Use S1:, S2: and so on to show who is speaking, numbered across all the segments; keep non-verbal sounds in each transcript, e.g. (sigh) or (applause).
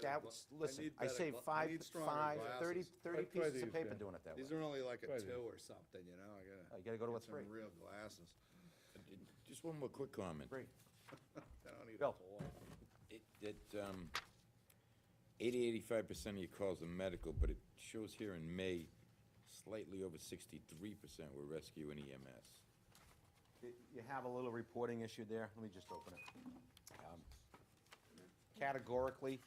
S1: I would,
S2: gla-
S1: listen,
S2: need
S1: I
S2: better
S1: save
S2: gla- I
S1: five,
S2: need stronger
S1: five, thirty,
S2: glasses.
S1: thirty
S3: Try- try
S1: pieces of
S3: these,
S1: paper
S3: man.
S1: doing it that way.
S2: These are only like a
S3: Right.
S2: two or something, you know, I gotta.
S1: Uh, You gotta go to a
S2: get
S1: three.
S2: Some real glasses.
S4: Just one more quick comment.
S1: Great.
S2: I don't need a
S1: Bill.
S2: whole lot.
S4: It, that, um, eighty, eighty-five percent of your calls are medical, but it shows here in May, slightly over sixty-three percent were rescue and E EMS.
S1: Y- You have a little reporting issue there, let me just open it. Um, Categorically,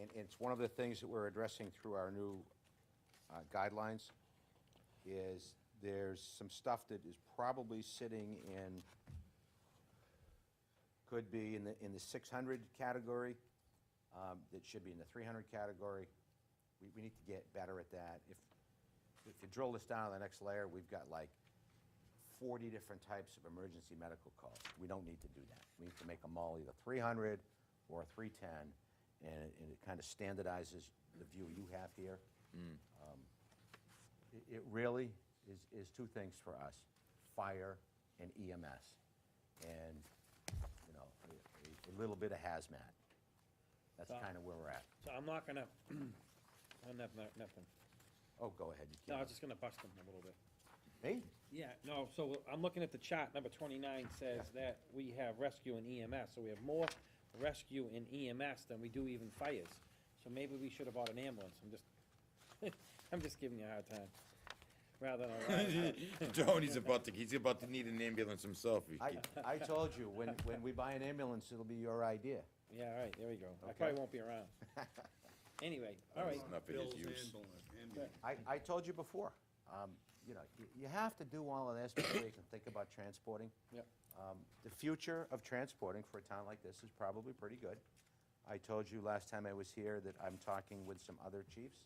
S1: and it's one of the things that we're addressing through our new uh, guidelines, is there's some stuff that is probably sitting in, could be in the, in the six hundred category, um, that should be in the three hundred category. We, we need to get better at that. If, if you drill this down to the next layer, we've got like 40 different types of emergency medical calls. We don't need to do that. We need to make them all either 300 or 310, and it, and it kind of standardizes the view you have here. Um, it- It really is, is two things for us, fire and EMS, and, you know, a- a, a little bit of hazmat. That's
S5: Tom.
S1: kind of where we're at.
S5: So I'm not gonna, (clears throat) I don't have no- nothing.
S1: Oh, go ahead, you
S5: No, I
S1: can.
S5: was just gonna bust them a little bit.
S1: Me?
S5: Yeah, no, so I'm looking at the chart, number twenty-nine says that we have rescue and EMS, so we have more rescue and EMS than we do even fires. So maybe we should have bought an ambulance, I'm just, (laughs) I'm just giving you a hard time, rather than. a riot.
S4: (laughs) (laughs) Tony's about to, he's about to need an ambulance himself. if he
S5: (laughs)
S1: I,
S4: keeps-
S1: I told you, when, when we buy an ambulance, it'll be your idea.
S5: Yeah, all right, there we go, I
S1: Okay.
S5: probably won't be around. Anyway, all right,
S4: It's not for his
S2: Bill's
S4: use.
S2: ambulance- ambulance.
S1: I, I told you before, um, you know, you, you have to do all of this before you can think about transporting.
S5: Yep.
S1: Um, the future of transporting for a town like this is probably pretty good. I told you last time I was here that I'm talking with some other chiefs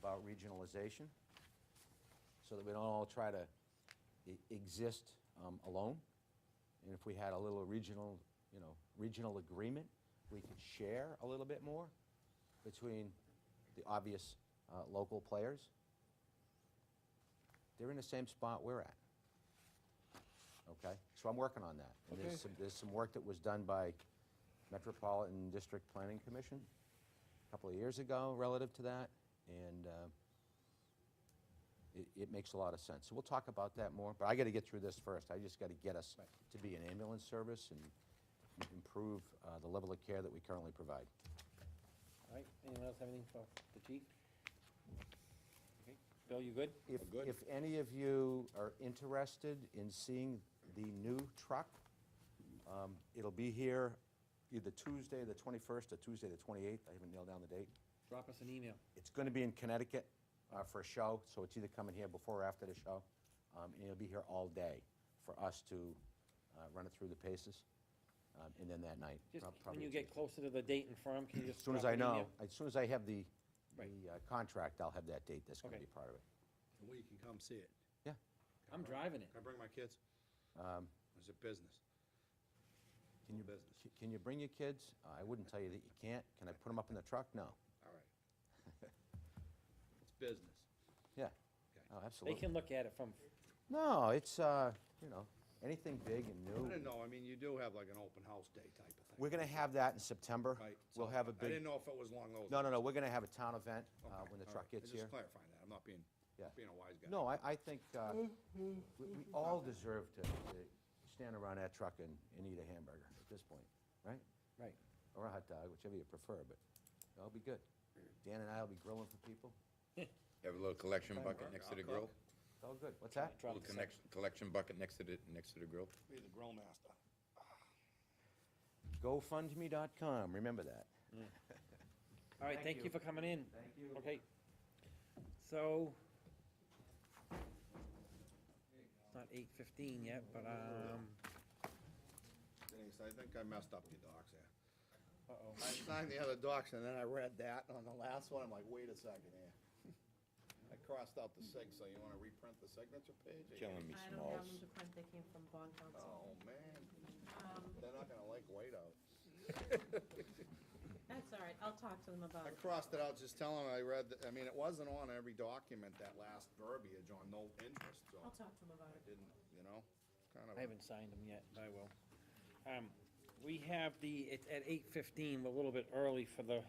S1: about regionalization, so that we don't all try to e- exist, um, alone. And if we had a little regional, you know, regional agreement, we could share a little bit more between the obvious uh, local players. They're in the same spot we're at. Okay, so I'm working on that. And there's some, there's some work that was done by Metropolitan District Planning Commission a couple of years ago relative to that, and uh, it, it makes a lot of sense. So we'll talk about that more, but I gotta get through this first. I just gotta get us to be an ambulance service and improve uh, the level of care that we currently provide.
S5: all right, anyone else have anything for the chief? Okay. Bill, you good?
S1: If, if any of you are interested in seeing the new truck, um, it'll be here either Tuesday, the 21st, or Tuesday, the 28th. I haven't nailed down the date.
S5: Drop us an email.
S1: It's going to be in Connecticut uh, for a show, so it's either coming here before or after the show. Um, And it'll be here all day for us to uh, run it through the paces, um, and then that night.
S5: Just,
S1: prob-
S5: when
S1: probably
S5: you get
S1: Tuesday.
S5: closer to the date and firm, can you just?
S1: As soon as
S5: drop
S1: I
S5: an email?
S1: know, as soon as I have the,
S5: Right.
S1: the uh, contract, I'll have that date. That's going to
S5: Okay.
S1: be part of it.
S2: And We can come see it.
S1: Yeah.
S5: I'm driving it.
S2: Can I bring my kids?
S1: Um,
S2: Is it business?
S1: Can you,
S2: Full business.
S1: c- can you bring your kids? Uh, I wouldn't tell you that you can't. Can I put them up in the truck? No.
S2: All right.
S1: (laughs)
S2: It's business.
S1: Yeah.
S2: Okay.
S1: Oh,
S5: They
S1: absolutely.
S5: can look at it from,
S1: No, it's, uh, you know, anything big and
S2: I
S1: new.
S2: didn't know, I mean, you do have like an open house day type of thing.
S1: We're gonna have that in September.
S2: Right,
S1: We'll
S2: so
S1: have a
S2: I didn't
S1: big,
S2: know if it was along those.
S1: no, no, no, we're gonna have a town event, uh,
S2: Okay,
S1: when the
S2: all
S1: truck
S2: right.
S1: gets
S2: Just
S1: here.
S2: clarifying that, I'm not being,
S1: Yeah.
S2: being a wise guy.
S1: No, I, I think, uh, we, we all deserve to, to stand around that truck and, and eat a hamburger at this point, right?
S5: right,
S1: Or a hot dog, whichever you prefer, but that'll be good. Dan and I'll be grilling for people.
S4: Have a little collection bucket
S2: Mark,
S4: next
S2: I'll
S4: to the
S2: cook.
S4: grill?
S1: It's all good. What's that?
S5: drop
S4: Little
S5: the second.
S4: connection, collection bucket next to the, next to the grill?
S2: Be the grill master.
S1: GoFundMe.com, remember that.
S5: All right,
S1: Thank
S5: thank you
S1: you.
S5: for coming in.
S1: Thank you.
S5: Okay. So. It's not eight fifteen yet, but, um,
S2: Denise, I think I messed up your docs there.
S5: uh-oh.
S2: I signed the other docs and then I read that on the last one, I'm like, wait a second here. (laughs) I crossed out the six, so you wanna reprint the signature page? again?
S4: Killing me
S6: I don't have
S4: smalls.
S6: them to print, they came from bond council.
S2: Oh, man,
S6: Um,
S2: they're not gonna like whiteout.
S6: That's all right, I'll talk to them
S2: I
S6: about it.
S2: crossed it out, just telling them I read, the- I mean, it wasn't on every document, that last verbiage on no interest, so
S6: I'll talk to them about
S2: I
S6: it.
S2: didn't, you know, kind of.
S5: I haven't signed them yet, but I will. Um, We have the, it's at eight fifteen, we're a little bit early for the